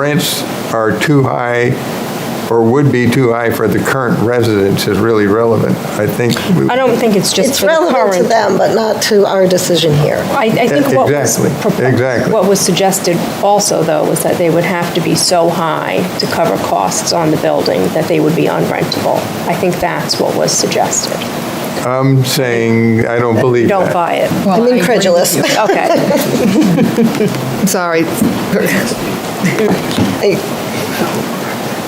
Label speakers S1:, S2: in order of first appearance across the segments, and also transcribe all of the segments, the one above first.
S1: rents are too high, or would be too high for the current residents is really relevant. I think. we-
S2: I don't think it's just
S3: It's
S2: for the
S3: relevant to
S2: current.
S3: them, but not to our decision here.
S2: I, I think what was,
S1: Exactly,
S2: propo-
S1: exactly.
S2: what was suggested also, though, was that they would have to be so high to cover costs on the building that they would be unrentable. I think that's what was suggested.
S1: I'm saying, I don't believe that.
S2: Don't buy it.
S3: I'm incredulous.
S2: Okay.
S4: Sorry.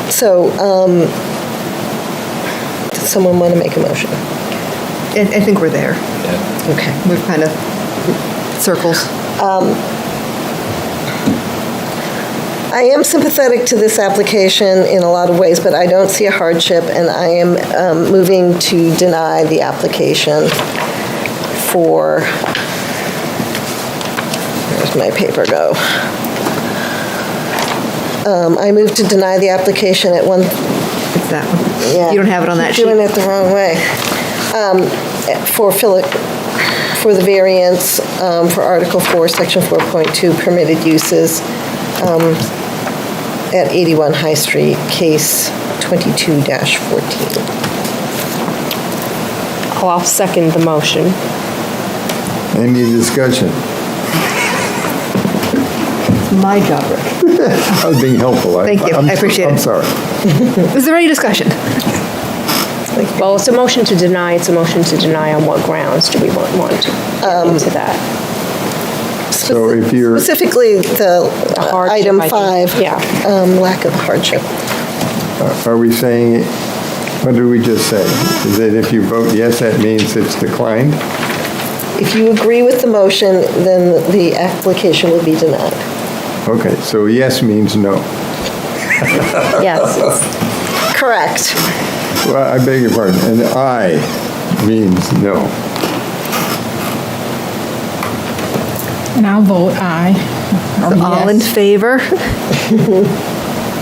S3: So, um, does someone want to make a motion?
S4: I, I think we're there.
S3: Okay.
S4: We've kind of circles.
S3: I am sympathetic to this application in a lot of ways, but I don't see a hardship, and I am um, moving to deny the application for, where's my paper go? Um, I move to deny the application at one,
S4: It's that one.
S3: yeah.
S4: You don't have it on that sheet.
S3: Doing it the wrong way. Um, For Philip, for the variance um, for Article 4, Section 4.2, permitted uses um, at 81 High Street, case 22-14.
S2: Well, I'll second the motion.
S5: Any discussion?
S4: It's my job, Rick.
S5: I was being helpful. I-
S4: Thank you.
S5: I'm-
S4: I appreciate
S5: I'm
S4: it.
S5: sorry.
S4: Is there any discussion?
S2: Well, it's a motion to deny, it's a motion to deny on what grounds do we want, want to
S3: Um,
S2: get into that?
S5: So if you're,
S3: Specifically, the
S2: The
S3: uh,
S2: hardship,
S3: item
S2: I think.
S3: five.
S2: Yeah.
S3: um, Lack of hardship.
S5: are we saying, what did we just say? Is that if you vote yes, that means it's declined?
S3: If you agree with the motion, then the application will be denied.
S5: Okay, so yes means no.
S2: Yes.
S3: Correct.
S5: Well, I beg your pardon, and aye means no.
S6: And I'll vote aye. Or
S4: All in
S6: yes.
S4: favor?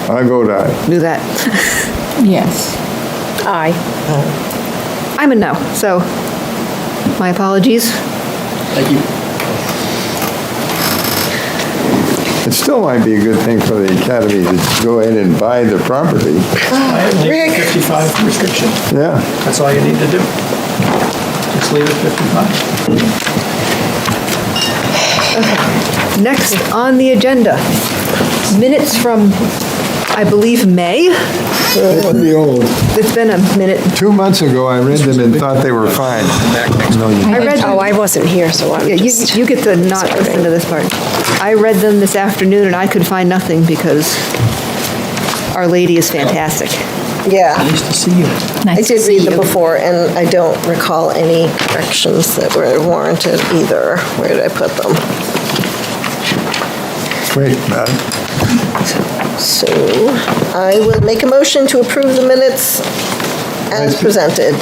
S5: I vote aye.
S4: Do that.
S6: Yes.
S2: Aye.
S4: I'm a no, so my apologies.
S7: Thank you.
S5: It still might be a good thing for the academy to go ahead and buy the property.
S7: I have
S3: Ah, Rick.
S7: 55 restriction.
S5: Yeah,
S7: That's all you need to do. Just leave it 55.
S4: Next on the agenda, minutes from, I believe, May.
S5: the old,
S4: It's been a minute.
S5: two months ago, I read them and thought they were fine. No, you
S4: I read,
S2: Oh, I wasn't here, so I'm
S4: Yeah, you,
S2: just.
S4: you get to not listen to this part. I read them this afternoon and I could find nothing because Our Lady is fantastic.
S3: Yeah.
S7: Nice to see you.
S3: I
S6: Nice to
S3: did
S6: see
S3: read them
S6: you.
S3: before, and I don't recall any corrections that were warranted either. Where did I put them?
S5: Wait, uh,
S3: So I will make a motion to approve the minutes as presented.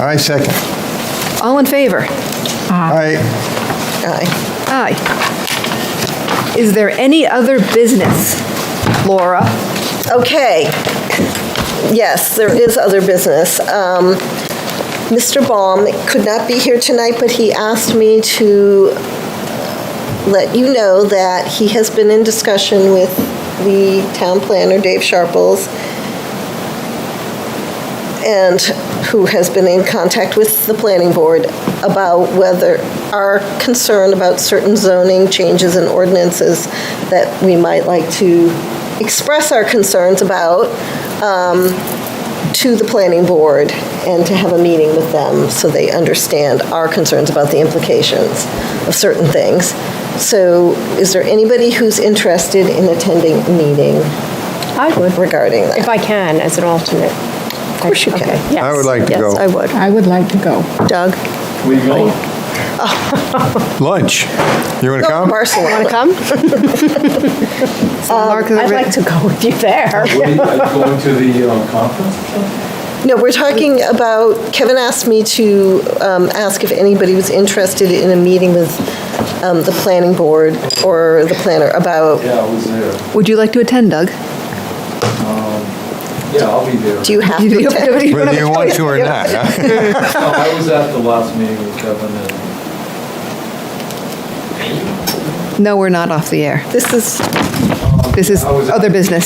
S5: I second.
S4: Uh-huh. All in favor?
S5: I,
S3: Aye.
S4: Aye. Is there any other business, Laura?
S3: Okay. Yes, there is other business. Um, Mr. Baum could not be here tonight, but he asked me to let you know that he has been in discussion with the town planner, Dave Sharples, and who has been in contact with the planning board about whether our concern about certain zoning changes and ordinances that we might like to express our concerns about um, to the planning board and to have a meeting with them so they understand our concerns about the implications of certain things. So is there anybody who's interested in attending a meeting
S2: I would.
S3: regarding that?
S2: If I can, as an alternate. Of
S3: course you can.
S2: Yes.
S5: I would like to go.
S2: Yes, I would.
S6: I would like to go.
S3: Doug?
S7: Where you going?
S5: lunch. You want to
S3: Go
S5: come?
S3: to Barcelona.
S2: Want to come?
S3: Um,
S2: I'd like to go with you there.
S8: going to the um, conference?
S3: No, we're talking about, Kevin asked me to um, ask if anybody was interested in a meeting with um, the planning board or the planner about,
S8: Yeah, I was there.
S4: Would you like to attend, Doug?
S8: Yeah, I'll be there.
S3: do you have to
S4: You don't-
S3: attend?
S4: you don't
S1: Whether
S4: have a
S1: you want
S4: choice.
S1: to or not, huh?
S8: No, I was at the last meeting with Kevin and
S4: No, we're not off the air.
S3: This is,
S8: um,
S4: This is
S8: I was-
S4: other business.